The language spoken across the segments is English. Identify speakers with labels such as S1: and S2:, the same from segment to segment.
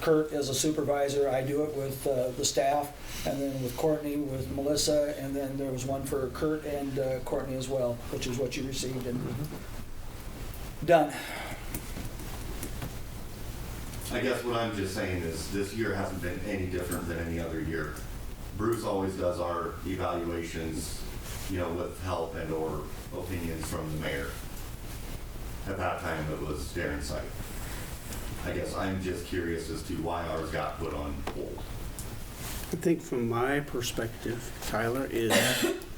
S1: Kurt as a supervisor, I do it with uh, the staff, and then with Courtney, with Melissa, and then there was one for Kurt and uh, Courtney as well, which is what you received and done.
S2: I guess what I'm just saying is this year hasn't been any different than any other year. Bruce always does our evaluations, you know, with help and or opinions from the mayor. At that time, it was Darren Sight. I guess I'm just curious as to why ours got put on hold.
S3: I think from my perspective, Tyler, is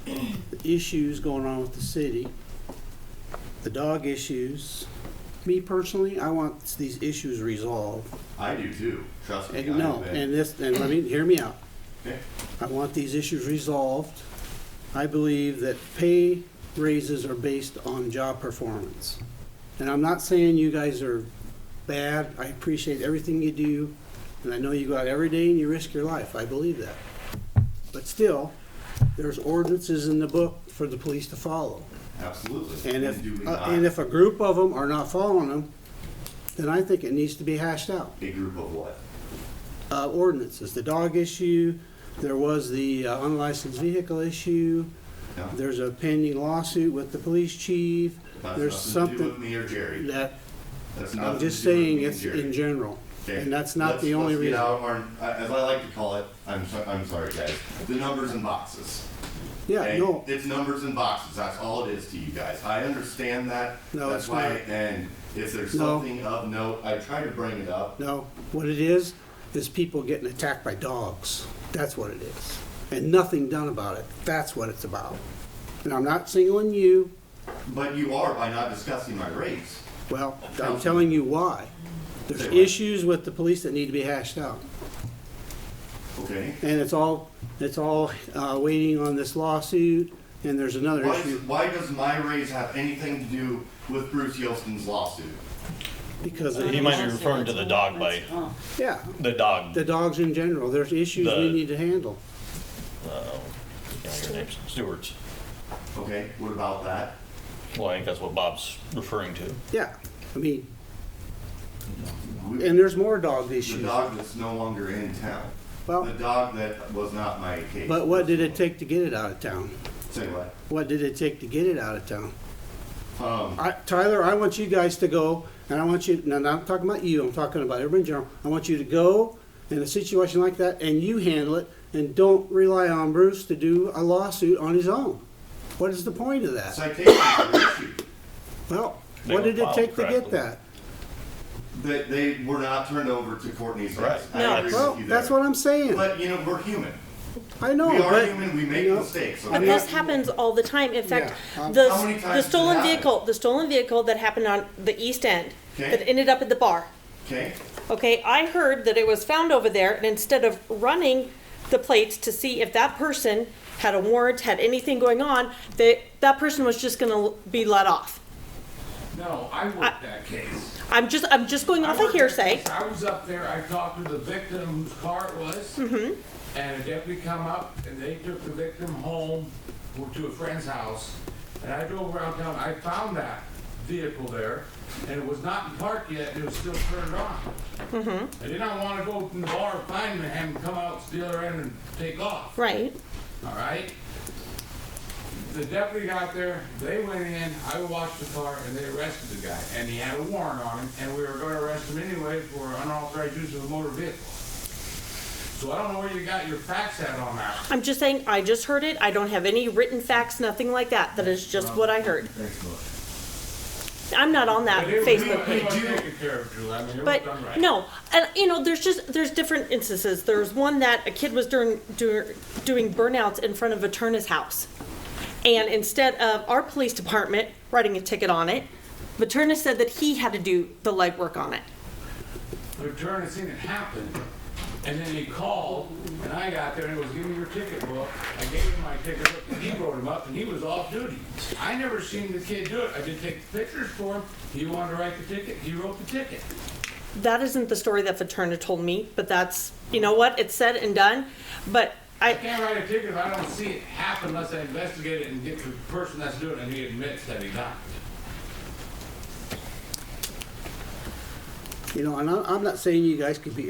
S3: the issues going on with the city, the dog issues. Me personally, I want these issues resolved.
S2: I do too, trust me.
S3: And no,
S2: I've been-
S3: and this, and let me, hear me out.
S2: Okay.
S3: I want these issues resolved. I believe that pay raises are based on job performance. And I'm not saying you guys are bad. I appreciate everything you do. And I know you go out every day and you risk your life. I believe that. But still, there's ordinances in the book for the police to follow.
S2: Absolutely.
S3: And if,
S2: do we
S3: uh,
S2: not-
S3: and if a group of them are not following them, then I think it needs to be hashed out
S2: A group of what?
S3: uh, ordinances, the dog issue, there was the uh, unlicensed vehicle issue,
S2: No,
S3: there's a pending lawsuit with the police chief, there's
S2: That's nothing to do with
S3: something
S2: me or Jerry.
S3: that,
S2: That's
S3: I'm
S2: nothing
S3: just
S2: to do with
S3: saying
S2: me and
S3: it's
S2: Jerry.
S3: in general.
S2: Okay,
S3: And that's not
S2: let's-
S3: the only
S2: let's get
S3: reason.
S2: out of our- as I like to call it, I'm, so, I'm sorry, guys, the numbers and boxes.
S3: Yeah,
S2: okay?
S3: no,
S2: It's numbers and boxes, that's all it is to you guys. I understand that.
S3: No,
S2: That's
S3: it's
S2: why,
S3: not.
S2: and if there's
S3: No.
S2: something of note, I try to bring it up.
S3: no, what it is, is people getting attacked by dogs, that's what it is. And nothing done about it, that's what it's about. And I'm not singling you,
S2: But you are by not discussing my rates.
S3: well, I'm telling you why. There's
S2: Say what?
S3: issues with the police that need to be hashed out.
S2: Okay?
S3: And it's all, it's all uh, waiting on this lawsuit, and there's another
S2: Why,
S3: issue,
S2: why does my raise have anything to do with Bruce Yelston's lawsuit?
S3: because, of-
S4: He might be referring to the dog bite.
S5: Oh,
S3: yeah,
S4: The dog.
S3: the dogs in general, there's issues we
S4: The-
S3: need to handle.
S4: Uh, yeah, your name's Stewart's.
S2: Okay, what about that?
S4: Well, I think that's what Bob's referring to.
S3: Yeah, I mean,
S2: We-
S3: and there's more dog
S2: The
S3: issues.
S2: dog that's no longer in town. The
S3: Well,
S2: dog that was not my case.
S3: but what did it take to get it out of town?
S2: Say what?
S3: What did it take to get it out of town?
S2: Um,
S3: I- Tyler, I want you guys to go, and I want you, no, no, I'm talking about you, I'm talking about everybody in general. I want you to go in a situation like that, and you handle it, and don't rely on Bruce to do a lawsuit on his own. What is the point of that?
S2: citations are issued.
S3: Well,
S4: They
S3: what
S4: don't
S3: did it
S4: file
S3: take to get
S4: correctly.
S3: that?
S2: They, they were not turned over to Courtney's desk.
S4: Right.
S2: I
S5: No.
S2: agree
S3: Well,
S2: with you there.
S3: that's what I'm saying.
S2: But, you know, we're human.
S3: I know,
S2: We are
S3: but,
S2: human, we make
S3: you know,
S2: mistakes.
S5: And
S2: okay?
S5: this happens all the time. In fact,
S3: Yeah. Um,
S5: the,
S2: How many times
S5: the
S2: does it
S5: stolen
S2: happen?
S5: vehicle, the stolen vehicle that happened on the east end,
S2: Okay.
S5: that ended up at the bar.
S2: Okay?
S5: Okay, I heard that it was found over there and instead of running the plates to see if that person had a warrant, had anything going on, that, that person was just gonna be let off.
S6: No, I worked that case.
S5: I'm just, I'm just going
S6: I
S5: off of
S6: worked that
S5: hearsay.
S6: case. I was up there, I talked to the victim whose car it was.
S5: Mm-hmm.
S6: And a deputy come up and they took the victim home or to a friend's house. And I drove around town, I found that vehicle there and it was not in park yet, and it was still turned on.
S5: Mm-hmm.
S6: I did not want to go to the bar, and find him, have him come out, steal her in and take off.
S5: Right,
S6: all right? The deputy got there, they went in, I watched the car, and they arrested the guy, and he had a warrant on him, and we were gonna arrest him anyway for unauthorized use of a motor vehicle. So I don't know where you got your facts at on that.
S5: I'm just saying, I just heard it. I don't have any written facts, nothing like that. That is just what I heard. I'm not on that
S6: But it was-
S5: Facebook
S6: it
S5: page.
S6: was taken care of, Drew, I mean, it was done right.
S5: But no, and you know, there's just there's different instances. There was one that a kid was doing doing, doing burnouts in front of a Turner's house, and instead of our police department writing a ticket on it, Materna said that he had to do the legwork on it.
S6: But Turner seen it happen, and then he called, and I got there, and it was, give me your ticket book. I gave him my ticket book, and he wrote him up, and he was off duty. I never seen the kid do it, I did take the pictures for him, he wanted to write the ticket, he wrote the ticket.
S5: That isn't the story that Materna told me, but that's you know what it's said and done. But
S6: I
S5: I
S6: can't write a ticket if I don't see it happen unless I investigate it and get the person that's doing it, and he admits that he done it.
S3: you know, and I- I'm not saying you guys could be